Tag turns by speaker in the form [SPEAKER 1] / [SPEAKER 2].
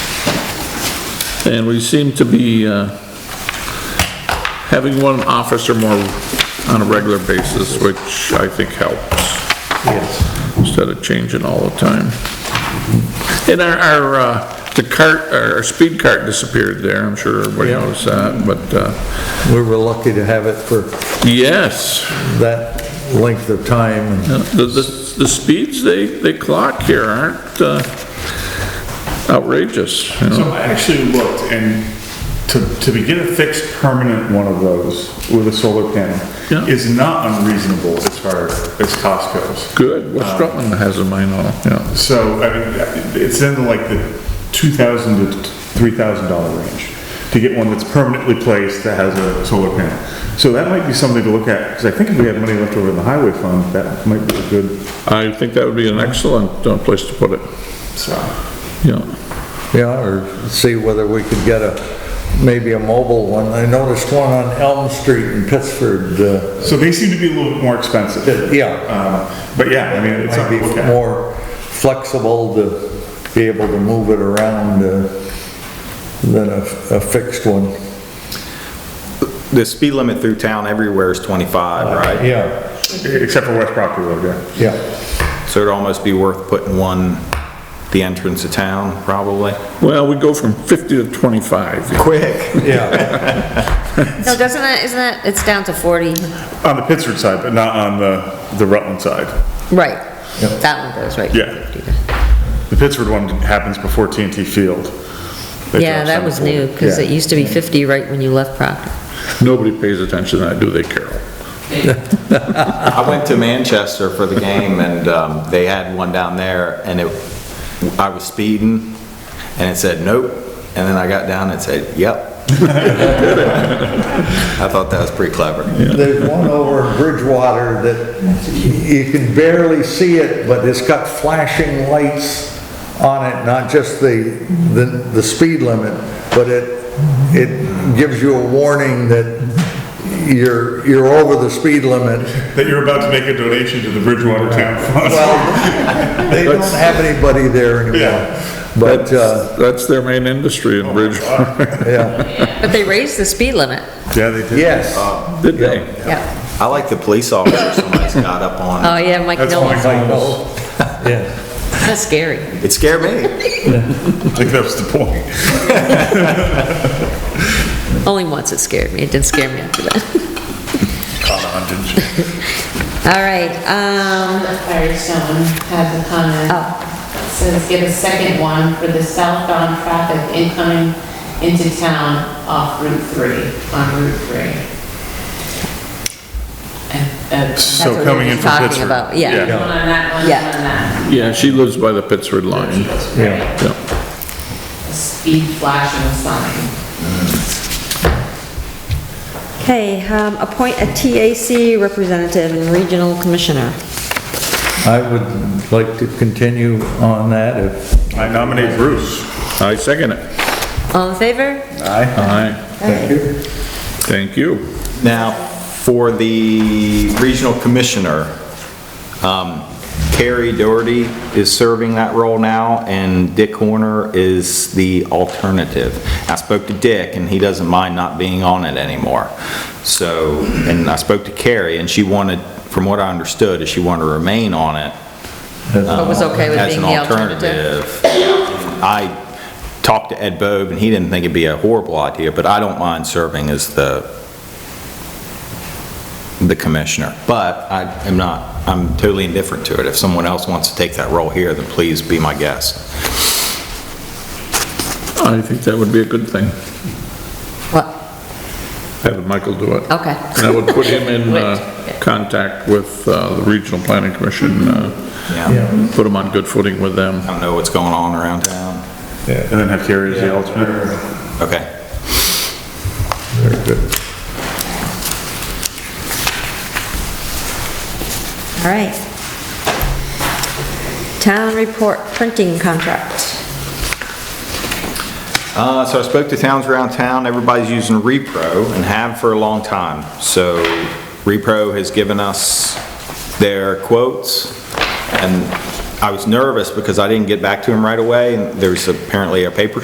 [SPEAKER 1] And we seem to be uh, having one officer more on a regular basis, which I think helps,
[SPEAKER 2] Yes.
[SPEAKER 1] instead of changing all the time. And our, our, uh, the cart, our speed cart disappeared there, I'm sure everybody
[SPEAKER 2] Yeah.
[SPEAKER 1] knows that, but, uh,
[SPEAKER 2] We were lucky to have it for
[SPEAKER 1] yes,
[SPEAKER 2] that length of time and
[SPEAKER 1] the, the the speeds they, they clock here aren't uh, outrageous, you know?
[SPEAKER 3] So I actually looked, and to, to begin a fixed permanent one of those with a solar panel
[SPEAKER 1] Yeah.
[SPEAKER 3] is not unreasonable as far as cost goes.
[SPEAKER 1] Good, West Rutland has a mine on, yeah.
[SPEAKER 3] So, I mean, it's in like the two thousand to three thousand dollar range to get one that's permanently placed that has a solar panel. So that might be something to look at, because I think if we had money left over in the highway fund, that might be a good,
[SPEAKER 1] I think that would be an excellent uh, place to put it,
[SPEAKER 3] so.
[SPEAKER 1] yeah.
[SPEAKER 2] Yeah, or see whether we could get a, maybe a mobile one. I noticed one on Elm Street in Pittsford, uh,
[SPEAKER 3] So they seem to be a little bit more expensive.
[SPEAKER 2] that- yeah.
[SPEAKER 3] Um, But yeah, I mean,
[SPEAKER 2] It
[SPEAKER 3] it's
[SPEAKER 2] might
[SPEAKER 3] something
[SPEAKER 2] be
[SPEAKER 3] to look at.
[SPEAKER 2] more flexible to be able to move it around uh, than a a fixed one.
[SPEAKER 4] The speed limit through town everywhere is 25, right?
[SPEAKER 2] Yeah,
[SPEAKER 3] Except for West Proctor Road, yeah.
[SPEAKER 2] yeah.
[SPEAKER 4] So it'd almost be worth putting one, the entrance of town, probably.
[SPEAKER 1] Well, we go from 50 to 25. yeah.
[SPEAKER 4] Quick.
[SPEAKER 2] Yeah,
[SPEAKER 5] No, doesn't it, isn't it, it's down to 40?
[SPEAKER 3] On the Pittsford side, but not on the, the Rutland side.
[SPEAKER 5] Right. That one goes right.
[SPEAKER 3] Yeah. The Pittsford one happens before TNT Field. They
[SPEAKER 5] Yeah,
[SPEAKER 3] drop
[SPEAKER 5] that
[SPEAKER 3] some
[SPEAKER 5] was
[SPEAKER 3] for-
[SPEAKER 5] new, because it
[SPEAKER 3] yeah.
[SPEAKER 5] used to be 50 right when you left Proctor.
[SPEAKER 1] Nobody pays attention to that, do they, Carol?
[SPEAKER 4] I went to Manchester for the game and um, they had one down there and it, I was speeding and it said, nope. And then I got down and it said, yep. I thought that was pretty clever.
[SPEAKER 2] there's one over in Bridgewater that you can barely see it, but it's got flashing lights on it, not just the, the, the speed limit, but it, it gives you a warning that you're, you're over the speed limit.
[SPEAKER 3] That you're about to make a donation to the Bridgewater Town Fund.
[SPEAKER 2] Well, they don't have anybody there anymore.
[SPEAKER 3] Yeah.
[SPEAKER 2] But, uh, Oh
[SPEAKER 1] That's- That's their main industry in Bridgewater,
[SPEAKER 2] yeah,
[SPEAKER 5] But they raised the speed limit.
[SPEAKER 3] Yeah, they did.
[SPEAKER 2] yes,
[SPEAKER 1] did they?
[SPEAKER 5] Yeah.
[SPEAKER 4] I like the police officer somebody's got up
[SPEAKER 5] Oh,
[SPEAKER 4] on.
[SPEAKER 5] yeah, Mike
[SPEAKER 3] That's
[SPEAKER 5] Nolan.
[SPEAKER 3] Mike Knowles.
[SPEAKER 2] yeah,
[SPEAKER 5] That's scary.
[SPEAKER 4] It scared me.
[SPEAKER 3] I think that was the point.
[SPEAKER 5] Only once it scared me. It didn't scare me after that.
[SPEAKER 3] Caught on, didn't you?
[SPEAKER 5] All right, um,
[SPEAKER 6] The Firestone has a comment. Says get a second one for the southbound traffic incoming into town off Route 3, on Route 3. And, uh, that's
[SPEAKER 3] So
[SPEAKER 5] what we
[SPEAKER 3] coming
[SPEAKER 5] were
[SPEAKER 3] in from
[SPEAKER 5] talking
[SPEAKER 3] Pittsford.
[SPEAKER 5] about, yeah.
[SPEAKER 6] One on that, one on
[SPEAKER 5] Yeah.
[SPEAKER 6] that.
[SPEAKER 1] Yeah, she lives by the Pittsford line.
[SPEAKER 2] yeah.
[SPEAKER 1] Yeah.
[SPEAKER 6] Speed flashing sign.
[SPEAKER 5] Okay, um, appoint a TAC representative and regional commissioner.
[SPEAKER 2] I would like to continue on that if,
[SPEAKER 3] I nominate Bruce.
[SPEAKER 1] I second it.
[SPEAKER 5] All in favor?
[SPEAKER 1] Aye.
[SPEAKER 2] thank you.
[SPEAKER 1] Thank you.
[SPEAKER 4] Now, for the regional commissioner, um, Carrie Doherty is serving that role now, and Dick Horner is the alternative. I spoke to Dick, and he doesn't mind not being on it anymore. So, and I spoke to Carrie, and she wanted, from what I understood, is she wanted to remain on it,
[SPEAKER 5] But was okay with
[SPEAKER 4] as
[SPEAKER 5] being
[SPEAKER 4] an
[SPEAKER 5] the alternative?
[SPEAKER 4] alternative. I talked to Ed Bove, and he didn't think it'd be a horrible idea, but I don't mind serving as the, the commissioner. But I am not, I'm totally indifferent to it. If someone else wants to take that role here, then please be my guest.
[SPEAKER 1] I think that would be a good thing,
[SPEAKER 5] What?
[SPEAKER 1] having Michael do it.
[SPEAKER 5] Okay.
[SPEAKER 1] And I would put him in uh,
[SPEAKER 5] Right.
[SPEAKER 1] contact with uh, the Regional Planning Commission, uh,
[SPEAKER 4] Yeah.
[SPEAKER 1] put him on good footing with them.
[SPEAKER 4] I don't know what's going on around town.
[SPEAKER 3] And then have Carrie as the alternate.
[SPEAKER 4] Okay.
[SPEAKER 5] All right. Town report printing contract.
[SPEAKER 4] Uh, So I spoke to towns around town, everybody's using Repro and have for a long time. So Repro has given us their quotes, and I was nervous because I didn't get back to them right away, and there's apparently a paper